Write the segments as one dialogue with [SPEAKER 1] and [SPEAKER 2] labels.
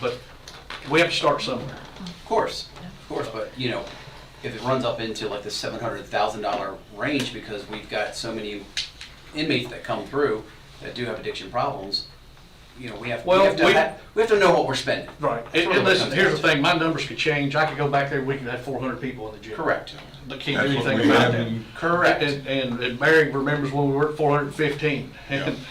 [SPEAKER 1] but we have to start somewhere.
[SPEAKER 2] Of course, of course, but you know, if it runs up into like the seven hundred thousand dollar range, because we've got so many inmates that come through that do have addiction problems, you know, we have, we
[SPEAKER 1] Well,
[SPEAKER 2] have to,
[SPEAKER 1] we-
[SPEAKER 2] ha- we have to know what we're spending.
[SPEAKER 1] Right, and, and listen, here's the thing, my numbers could change, I could go back there, we could have four hundred people in the jail.
[SPEAKER 2] Correct.
[SPEAKER 1] But can't do
[SPEAKER 3] That's what
[SPEAKER 1] anything
[SPEAKER 3] we
[SPEAKER 1] about
[SPEAKER 3] have
[SPEAKER 1] that.
[SPEAKER 3] in-
[SPEAKER 2] Correct.
[SPEAKER 1] And, and and Mary remembers when we were at four hundred and fifteen.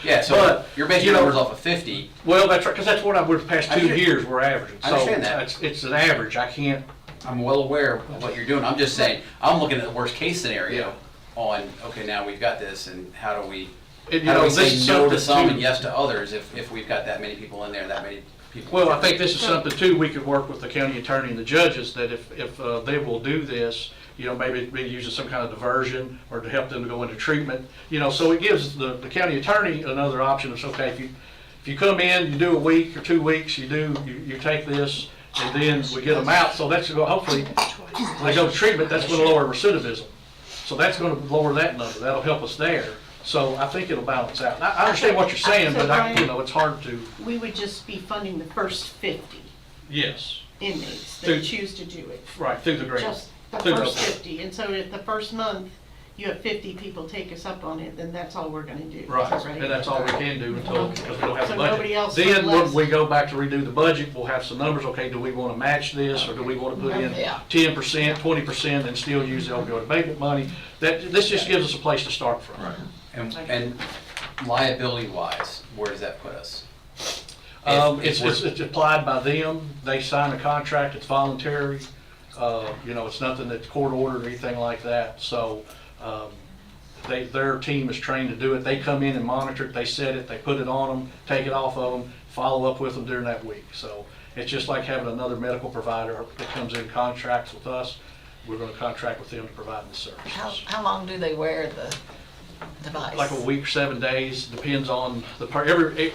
[SPEAKER 2] Yeah, so
[SPEAKER 1] But,
[SPEAKER 2] you're basing
[SPEAKER 1] you know,
[SPEAKER 2] numbers off of fifty,
[SPEAKER 1] Well, that's right, because that's what I, we're the past
[SPEAKER 2] I
[SPEAKER 1] two
[SPEAKER 2] understand.
[SPEAKER 1] years, we're averaging.
[SPEAKER 2] I understand that.
[SPEAKER 1] So it's, it's an average, I can't,
[SPEAKER 2] I'm well aware of what you're doing, I'm just saying, I'm looking at the worst case scenario on, okay, now we've got this, and how do we,
[SPEAKER 1] And, you
[SPEAKER 2] how
[SPEAKER 1] know,
[SPEAKER 2] do we
[SPEAKER 1] this
[SPEAKER 2] say
[SPEAKER 1] is
[SPEAKER 2] no
[SPEAKER 1] something
[SPEAKER 2] to some and
[SPEAKER 1] too-
[SPEAKER 2] yes to others, if, if we've got that many people in there, that many people.
[SPEAKER 1] well, I think this is something too, we could work with the county attorney and the judges, that if, if uh, they will do this, you know, maybe be using some kind of diversion or to help them to go into treatment, you know, so it gives the, the county attorney another option, it's okay, if you, if you come in, you do a week or two weeks, you do, you, you take this, and then we get them out, so that's, gonna hopefully, when they go to treatment, that's gonna lower recidivism. So that's gonna lower that number, that'll help us there. So I think it'll balance out. And I, I understand what you're saying, but I, you know, it's hard to,
[SPEAKER 4] We would just be funding the first 50
[SPEAKER 1] yes,
[SPEAKER 4] inmates
[SPEAKER 1] Through-
[SPEAKER 4] that choose to do it.
[SPEAKER 1] right, through the grade.
[SPEAKER 4] Just the
[SPEAKER 1] Through
[SPEAKER 4] first 50. And so if the first month, you have 50 people take us up on it, then that's all we're going to do.
[SPEAKER 1] Right, and that's all we can do until, because we don't have the
[SPEAKER 4] So
[SPEAKER 1] budget.
[SPEAKER 4] nobody else
[SPEAKER 1] Then when
[SPEAKER 4] unless-
[SPEAKER 1] we go back to redo the budget, we'll have some numbers, okay, do we wanna match this, or do we wanna put in
[SPEAKER 4] Yeah.
[SPEAKER 1] ten percent, twenty percent, and still use the opioid abatement money? That, this just gives us a place to start from.
[SPEAKER 3] Right.
[SPEAKER 2] And, and liability-wise, where does that put us?
[SPEAKER 1] Um,
[SPEAKER 2] If-
[SPEAKER 1] it's,
[SPEAKER 2] if
[SPEAKER 1] it's,
[SPEAKER 2] we're-
[SPEAKER 1] it's applied by them, they sign a contract, it's voluntary, uh, you know, it's nothing that's court ordered or anything like that, so, um, they, their team is trained to do it, they come in and monitor it, they set it, they put it on them, take it off of them, follow up with them during that week, so it's just like having another medical provider that comes in contracts with us, we're gonna contract with them to provide the
[SPEAKER 5] How,
[SPEAKER 1] services.
[SPEAKER 5] how long do they wear the device?
[SPEAKER 1] Like a week, seven days, depends on the, per- every, e,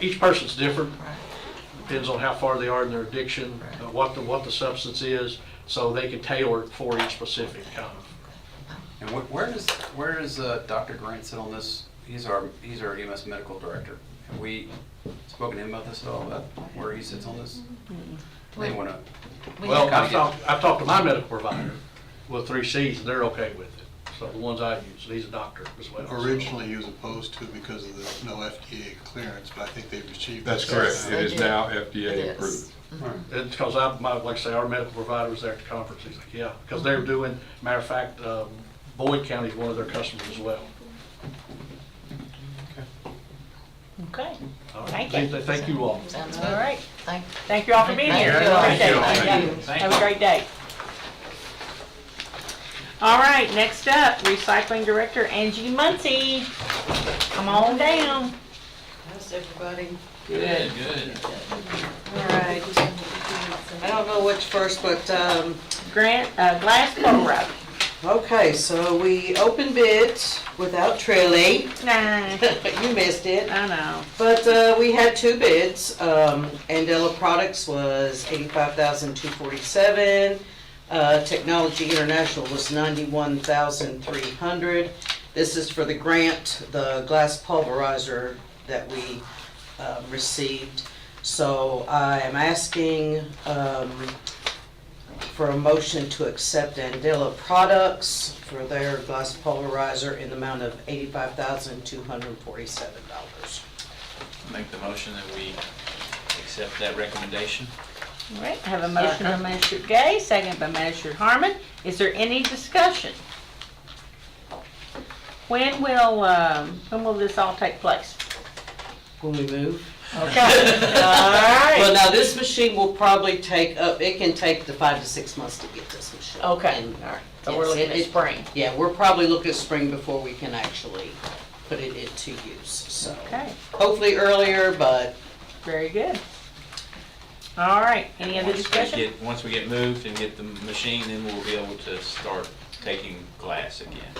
[SPEAKER 1] each person's different,
[SPEAKER 5] Right.
[SPEAKER 1] depends on how far they are in their addiction, uh, what the, what the substance is, so they can tailor it for each specific kind of.
[SPEAKER 2] And where, where does, where does uh, Dr. Grant sit on this? He's our, he's our EMS medical director. Have we spoken to him about this at all, about where he sits on this? Anyone know?
[SPEAKER 5] We-
[SPEAKER 1] Well,
[SPEAKER 2] gotta
[SPEAKER 1] I've
[SPEAKER 2] get-
[SPEAKER 1] talked, I've talked to my medical provider with three Cs, and they're okay with it. So the ones I use, and he's a doctor as well. so-
[SPEAKER 6] Originally, he was opposed to because of the no FDA clearance, but I think they've achieved.
[SPEAKER 3] That's
[SPEAKER 6] that.
[SPEAKER 3] correct. It is
[SPEAKER 5] Yes,
[SPEAKER 3] now
[SPEAKER 5] It
[SPEAKER 3] FDA
[SPEAKER 5] is.
[SPEAKER 3] approved.
[SPEAKER 1] It's because I, my, like I say, our medical provider was there at the conference, he's like, yeah, because they're
[SPEAKER 5] Mm-hmm.
[SPEAKER 1] doing, matter of fact, um, Boyd County's one of their customers as well.
[SPEAKER 7] Okay,
[SPEAKER 1] All right.
[SPEAKER 7] Thank
[SPEAKER 1] They-
[SPEAKER 7] you.
[SPEAKER 1] they Thank you all.
[SPEAKER 5] Sounds
[SPEAKER 7] all
[SPEAKER 5] good.
[SPEAKER 7] right.
[SPEAKER 5] Thank
[SPEAKER 7] Thank you all for being
[SPEAKER 5] Thank
[SPEAKER 7] here.
[SPEAKER 5] you.
[SPEAKER 7] Appreciate it.
[SPEAKER 5] Thank
[SPEAKER 7] Yeah.
[SPEAKER 5] you.
[SPEAKER 7] Have a great day. All right, next up, Recycling Director Angie Muncy. Come on down.
[SPEAKER 8] How's everybody?
[SPEAKER 2] Good.
[SPEAKER 8] All right. I don't know which first, but, um,
[SPEAKER 7] Grant, uh, Glass Bowl Road.
[SPEAKER 8] okay, so we opened bids without trailing.
[SPEAKER 7] Nah,
[SPEAKER 8] You missed it.
[SPEAKER 7] I know.
[SPEAKER 8] But uh, we had two bids. Um, Andela Products was eighty-five thousand two forty-seven. Uh, Technology International was ninety-one thousand three hundred. This is for the grant, the glass pulverizer that we um, received. So I am asking um, for a motion to accept Andela Products for their glass pulverizer in the amount of eighty-five thousand two hundred forty-seven dollars.
[SPEAKER 9] Make the motion that we accept that recommendation.
[SPEAKER 7] All right, I have a motion by Manager Gay, second by Manager Harmon. Is there any discussion? When will, um, when will this all take place?
[SPEAKER 8] when we move.
[SPEAKER 7] Okay, all right.
[SPEAKER 8] Well, now, this machine will probably take up, it can take the five to six months to get this machine.
[SPEAKER 7] Okay.
[SPEAKER 8] And-
[SPEAKER 7] So we're
[SPEAKER 8] Yes,
[SPEAKER 7] looking at
[SPEAKER 8] it-
[SPEAKER 7] spring.
[SPEAKER 8] Yeah, we're probably looking at spring before we can actually put it into use, so.
[SPEAKER 7] Okay,
[SPEAKER 8] Hopefully earlier, but
[SPEAKER 7] very good. All right, any other
[SPEAKER 9] Once we
[SPEAKER 7] discussion?
[SPEAKER 9] get, once we get moved and get the machine, then we'll be able to start taking glass again.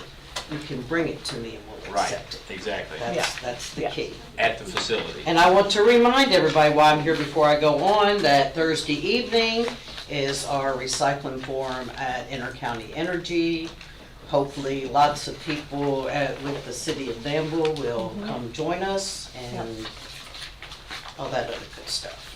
[SPEAKER 8] you can bring it to me and we'll accept it.
[SPEAKER 9] Exactly,
[SPEAKER 8] That's,
[SPEAKER 7] Yeah.
[SPEAKER 8] that's the
[SPEAKER 7] Yeah.
[SPEAKER 8] key.
[SPEAKER 9] at the facility.
[SPEAKER 8] And I want to remind everybody while I'm here before I go on, that Thursday evening is our recycling forum at Intercounty Energy. Hopefully, lots of people uh, with the city of Danville will come join us and all that other good stuff.